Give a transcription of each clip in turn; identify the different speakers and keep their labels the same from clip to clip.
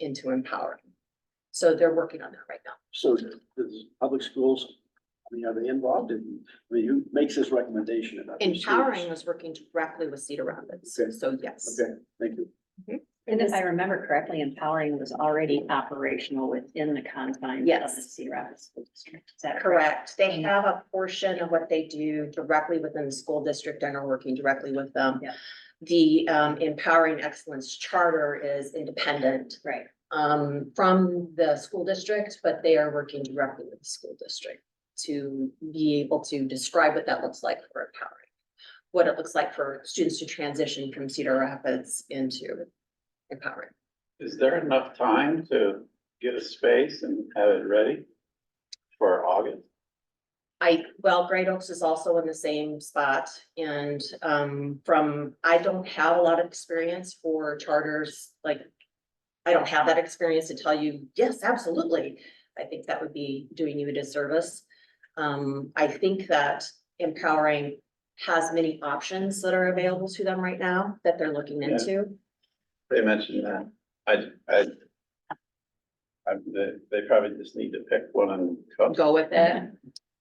Speaker 1: into empowering. So they're working on that right now.
Speaker 2: So the, the public schools, I mean, are they involved in, I mean, who makes this recommendation about? these schools?
Speaker 1: Empowering was working directly with Cedar Rapids,
Speaker 2: Okay.
Speaker 1: so yes.
Speaker 2: Okay, thank you.
Speaker 3: And if I remember correctly, empowering was already operational within the confines of the
Speaker 1: Yes.
Speaker 3: Cedar Rapids School District. Is that
Speaker 1: Correct. They have a portion of what they do directly within the school district and are working directly with them.
Speaker 3: Yeah.
Speaker 1: The um, empowering excellence charter is independent
Speaker 3: Right.
Speaker 1: um, from the school district, but they are working directly with the school district to be able to describe what that looks like for empowering. What it looks like for students to transition from Cedar Rapids into empowering.
Speaker 4: Is there enough time to get a space and have it ready for August?
Speaker 1: I, well, Great Oaks is also in the same spot and um from, I don't have a lot of experience for charters, like. I don't have that experience to tell you, yes, absolutely. I think that would be doing you a disservice. Um, I think that empowering has many options that are available to them right now that they're looking
Speaker 4: Yeah.
Speaker 1: into.
Speaker 4: They mentioned that. I, I. I, they, they probably just need to pick one and come.
Speaker 1: Go with it.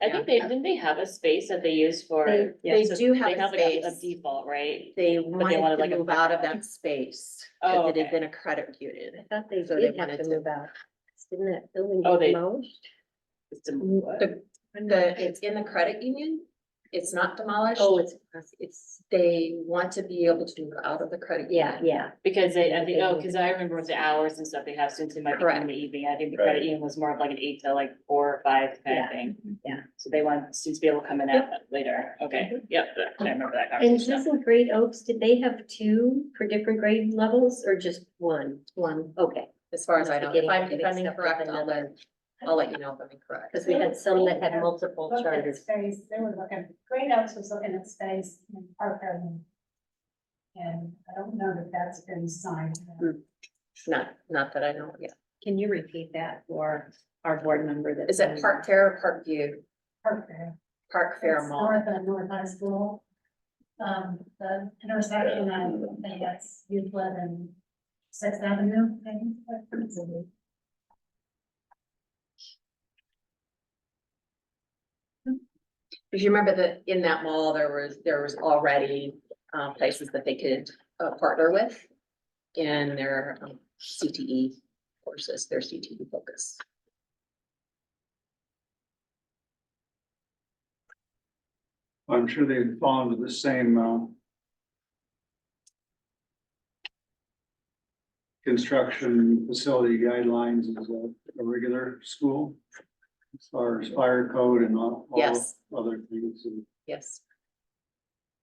Speaker 5: I think they, didn't they have a space that they use for?
Speaker 1: They
Speaker 3: Yeah,
Speaker 1: they
Speaker 3: so
Speaker 1: do
Speaker 5: They
Speaker 1: have a
Speaker 5: have like a- a
Speaker 1: space.
Speaker 5: default, right?
Speaker 1: They
Speaker 5: wanted,
Speaker 1: wanted
Speaker 5: like,
Speaker 1: to
Speaker 5: a-
Speaker 1: move out of that space.
Speaker 5: Oh,
Speaker 1: Because it had
Speaker 5: okay.
Speaker 1: been a credit union.
Speaker 6: I thought they
Speaker 1: So they
Speaker 6: did have
Speaker 1: wanted
Speaker 6: to
Speaker 1: to-
Speaker 6: move out. Didn't that building
Speaker 5: Oh,
Speaker 6: get
Speaker 5: they-
Speaker 6: demolished?
Speaker 5: It's a-
Speaker 1: The, the- it's in the credit union, it's not demolished,
Speaker 6: Oh, it's, it's,
Speaker 1: they want to be able to move out of the credit.
Speaker 6: yeah,
Speaker 1: union.
Speaker 6: yeah.
Speaker 5: Because they, I think, oh, because I remember with the hours and stuff they have students who might be
Speaker 1: Correct.
Speaker 5: in the evening. I think the
Speaker 4: Right.
Speaker 5: credit union was more of like an eight to like four or five kind of
Speaker 3: Yeah.
Speaker 5: thing.
Speaker 3: Yeah.
Speaker 5: So they want students to be able to come in at later. Okay,
Speaker 1: Mm-hmm.
Speaker 5: yep, I remember that
Speaker 6: And
Speaker 5: conversation.
Speaker 6: doesn't Great Oaks, did they have two for different grade levels or just one?
Speaker 1: One,
Speaker 6: Okay,
Speaker 1: as far as I know, if I'm, if I'm
Speaker 6: Mixed up with
Speaker 1: incorrect, I'll let,
Speaker 6: another.
Speaker 1: I'll let you know if I'm incorrect.
Speaker 6: because we had some that had multiple
Speaker 7: Looked at
Speaker 6: charters.
Speaker 7: Space, they were looking, Great Oaks was looking at space in Parker. and- And I don't know that that's been signed.
Speaker 1: Not, not that I know, yeah,
Speaker 3: Can you repeat that for our board member that?
Speaker 1: is it
Speaker 6: Mm.
Speaker 1: Park Terra, Park View,
Speaker 7: Parker.
Speaker 1: Park Fair
Speaker 7: It's
Speaker 1: Mall?
Speaker 7: North of North High School. Um, the intersection, I think that's Euclid and Sixth Avenue, I think. that's a big-
Speaker 1: Because you remember that in that mall, there was, there was already, uh, places that they could, uh, partner with in their um, CTE courses, their CTE focus.
Speaker 8: I'm sure they would fall into the same, um. Construction facility guidelines as a, a regular school. As far as fire code and all, all
Speaker 1: Yes,
Speaker 8: other things. and-
Speaker 1: yes.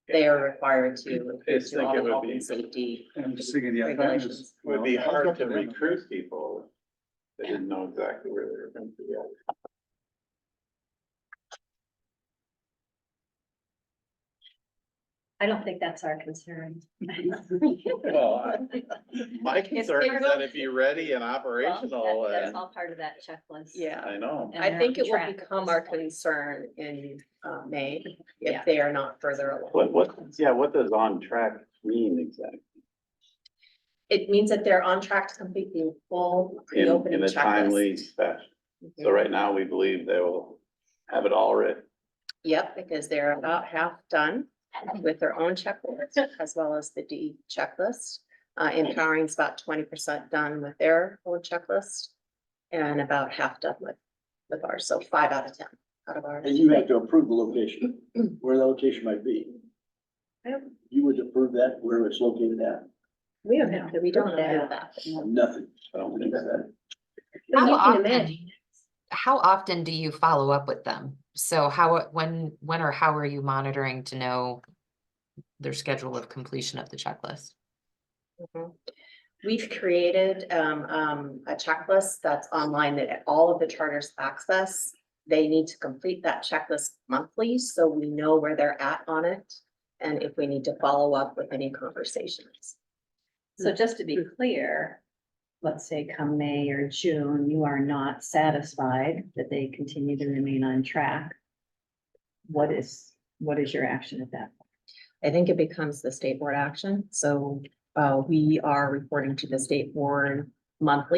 Speaker 1: They are required to.
Speaker 4: I just
Speaker 1: do all
Speaker 4: think it
Speaker 1: the
Speaker 4: would
Speaker 1: health
Speaker 4: be,
Speaker 1: and safety.
Speaker 8: And I'm just thinking, yeah. that
Speaker 1: Regulations.
Speaker 8: is-
Speaker 4: would be
Speaker 8: well, that's
Speaker 4: hard
Speaker 8: up
Speaker 4: to
Speaker 8: them.
Speaker 4: recruit people. if They didn't know exactly where they were going to go.
Speaker 3: I don't think that's our concern.
Speaker 4: Well, I- my concern is that it'd be ready and operational
Speaker 3: Well, that-
Speaker 4: and,
Speaker 3: That's all part of that checklist.
Speaker 1: Yeah,
Speaker 4: I know.
Speaker 3: And
Speaker 1: I
Speaker 3: they're
Speaker 1: think
Speaker 3: on
Speaker 1: it
Speaker 3: track
Speaker 1: will
Speaker 3: at
Speaker 1: become
Speaker 3: this
Speaker 1: our
Speaker 3: point.
Speaker 1: concern in uh May
Speaker 3: Yeah.
Speaker 1: if they are not further along.
Speaker 4: What, what, yeah, what does on track mean exactly?
Speaker 1: It means that they're on track to complete the full
Speaker 4: In, in
Speaker 1: pre-opening
Speaker 4: a
Speaker 1: checklist.
Speaker 4: timely fashion. So
Speaker 1: Mhm.
Speaker 4: right now, we believe they will have it all ready.
Speaker 1: Yep, because they're about half done with their own checklist as well as the D checklist. Uh, empowering's about twenty percent done with their own checklist and about half done with with ours, so five out of ten out of ours.
Speaker 2: And you have to approve the location, where the location might be.
Speaker 6: Yep.
Speaker 2: You would approve that where it's located at,
Speaker 6: We don't have to,
Speaker 1: We don't
Speaker 6: put
Speaker 1: know
Speaker 6: that.
Speaker 1: that.
Speaker 2: nothing.
Speaker 4: I don't
Speaker 2: Think
Speaker 4: think
Speaker 2: about
Speaker 4: that.
Speaker 2: that.
Speaker 6: But
Speaker 9: How
Speaker 6: you can
Speaker 9: often do
Speaker 6: imagine.
Speaker 9: you- How often do you follow up with them? So how, when, when or how are you monitoring to know their schedule of completion of the checklist?
Speaker 1: Mhm. We've created um, um, a checklist that's online that all of the charters access. They need to complete that checklist monthly, so we know where they're at on it. And if we need to follow up with any conversations.
Speaker 3: So just to be clear, let's say come May or June, you are not satisfied that they continue to remain on track. What is, what is your action at that?
Speaker 1: I think it becomes the state board action, so uh, we are reporting to the state board monthly.